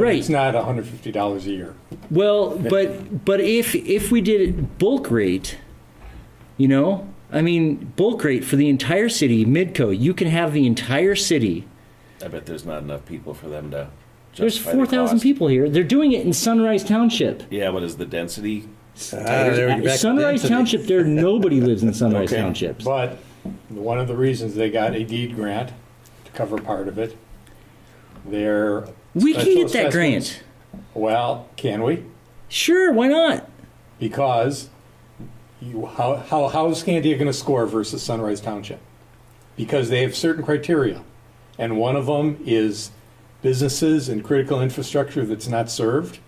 Right. It's not $150 a year. Well, but but if if we did it bulk rate, you know, I mean bulk rate for the entire city, Midco, you can have the entire city. I bet there's not enough people for them to. There's justify the four thousand cost. people here. They're doing it in Sunrise Township. Yeah, what is the density? Ah, there we go, back to Sunrise density. Township, there nobody lives in Sunrise Okay. Township. But one of the reasons they got a deed grant to cover part of it, their. We can special get that assessments- grant. Well, can we? Sure, why not? Because you, how, how, how is Scandia going to score versus Sunrise Township? Because they have certain criteria. And one of them is businesses and critical infrastructure that's not served.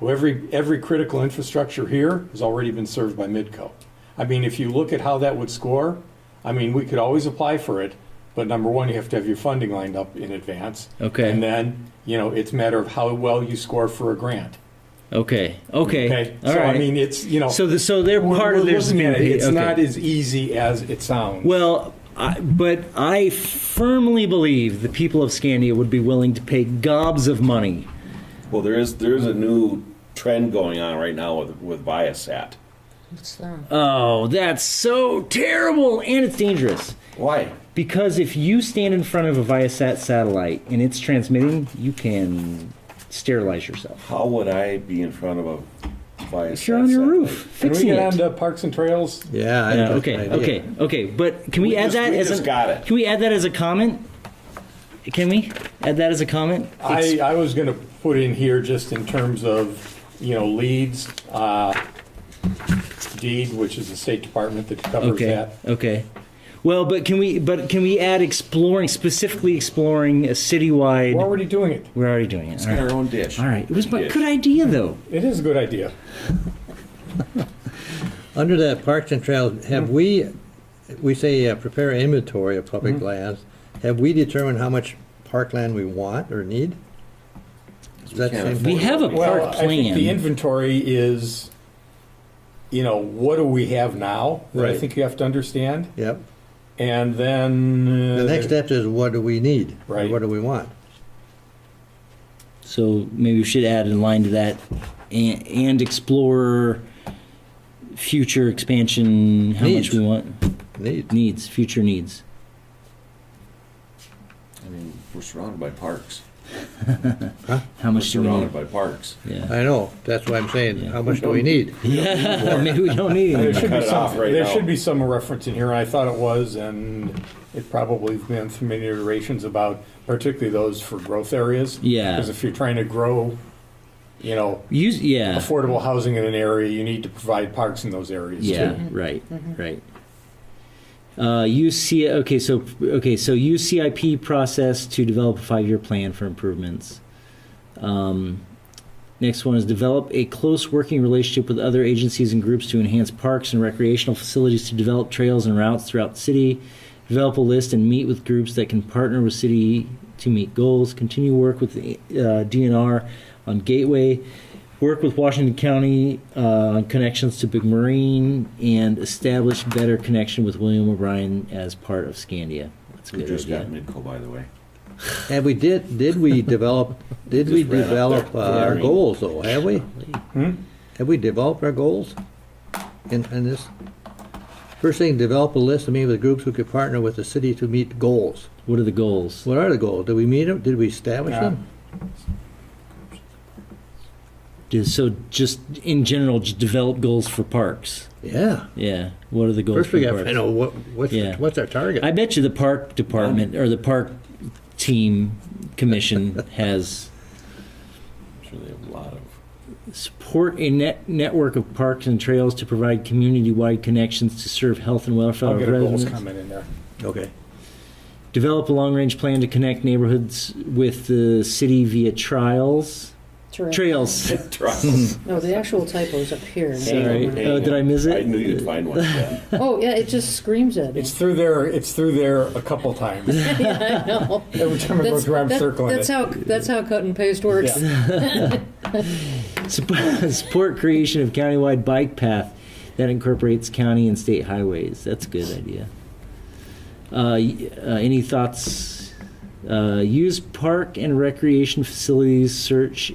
Well, every, every critical infrastructure here has already been served by Midco. I mean, if you look at how that would score, I mean, we could always apply for it, but number one, you have to have your funding lined up in advance. Okay. And then, you know, it's a matter of how well you score for a grant. Okay. Okay. Okay. All so right. I mean, it's you know. So the- so they're we're- part we're of their looking at it. community. It's Okay. not as easy as it sounds. Well, I, but I firmly believe the people of Scandia would be willing to pay gobs of money. Well, there is there is a new trend going on right now with with Viasat. Oh, that's so terrible and it's dangerous. Why? Because if you stand in front of a Viasat satellite and it's transmitting, you can sterilize yourself. How would I be in front of a Viasat? If you're on your satellite? roof, Can we fixing get it. on to parks and trails? Yeah. I Yeah, think that's okay, an idea. okay, okay. But can we, We add just- that we as just a got it. can we add that as a comment? Can we add that as a comment? I, I was going to put in here just in terms of you know leads, uh, deed, which is the State Department that covers okay. that. Okay. Well, but can we but can we add exploring specifically exploring a citywide? We're already doing it. We're already doing it. All In right. our own dish. All right. It was my Yes. good idea though. It is a good idea. Under that Parks and Trails, have we, we say uh, prepare inventory of public lands. Have we determined how much parkland we want or need? Is that the can't same afford We thing? have a Well, park I think the plan. inventory is, you know, what do we have now? that I Right. think you have to understand, Yep. and then uh, The next step is what do we need? or Right. What do we want? So maybe we should add in line to that and, and explore future expansion how Needs. much we want Need. needs future needs. I mean, we're surrounded by parks. How We're much do we need? surrounded by parks. Yeah. I know, that's why I'm saying, Yeah. how much do we need? Yeah, maybe we don't need There any. should Cut be it off some, right there now. should be some reference in here, and I thought it was, and it probably has been some iterations about particularly those for growth areas. Yeah. Because if you're trying to grow, you know, Use yeah. affordable housing in an area, you need to provide parks in those areas Yeah, too. right, right. Uh, UC, okay, so okay, so UCIP process to develop a five-year plan for improvements. Um, next one is develop a close working relationship with other agencies and groups to enhance parks and recreational facilities to develop trails and routes throughout the city. Develop a list and meet with groups that can partner with city to meet goals. Continue work with the uh, DNR on Gateway. Work with Washington County uh, on connections to Big Marine and establish better connection with William O'Brien as part of Scandia. That's a We good just got idea. Midco, by the way. And we did, did we develop, did we Just ran up develop there. uh, our Yeah. goals though, have we? Hmm? Have we developed our goals in, in this? First thing, develop a list of meet with groups who could partner with the city to meet goals. What are the goals? What are the goals? Did we meet them? Did we establish Yeah. them? Do- So just in general, just develop goals for parks. Yeah. Yeah. What are the goals First, we for got to parks? find out what, what's, Yeah. what's our target. I bet you the park department or the park team commission has I'm sure they have a lot of. support a net network of parks and trails to provide community-wide connections to serve health and welfare I'll of get a goals Oh, residents. comment in there. Okay. Develop a long-range plan to connect neighborhoods with the city via trials. Terrain. Trails. Trust. No, the actual typo is up here. Sorry. Dang Oh, did I miss it? I knew you'd find one. Yeah. Oh, yeah, it just screams at me. It's through there, it's through there a couple times. I know. Every time I go That's, through, I'm that- circling that's it. how that's how cut and paste works. Yeah. Support, support creation of countywide bike path that incorporates county and state highways. That's a good idea. Uh, y- uh, any thoughts Uh, use park and recreation facilities search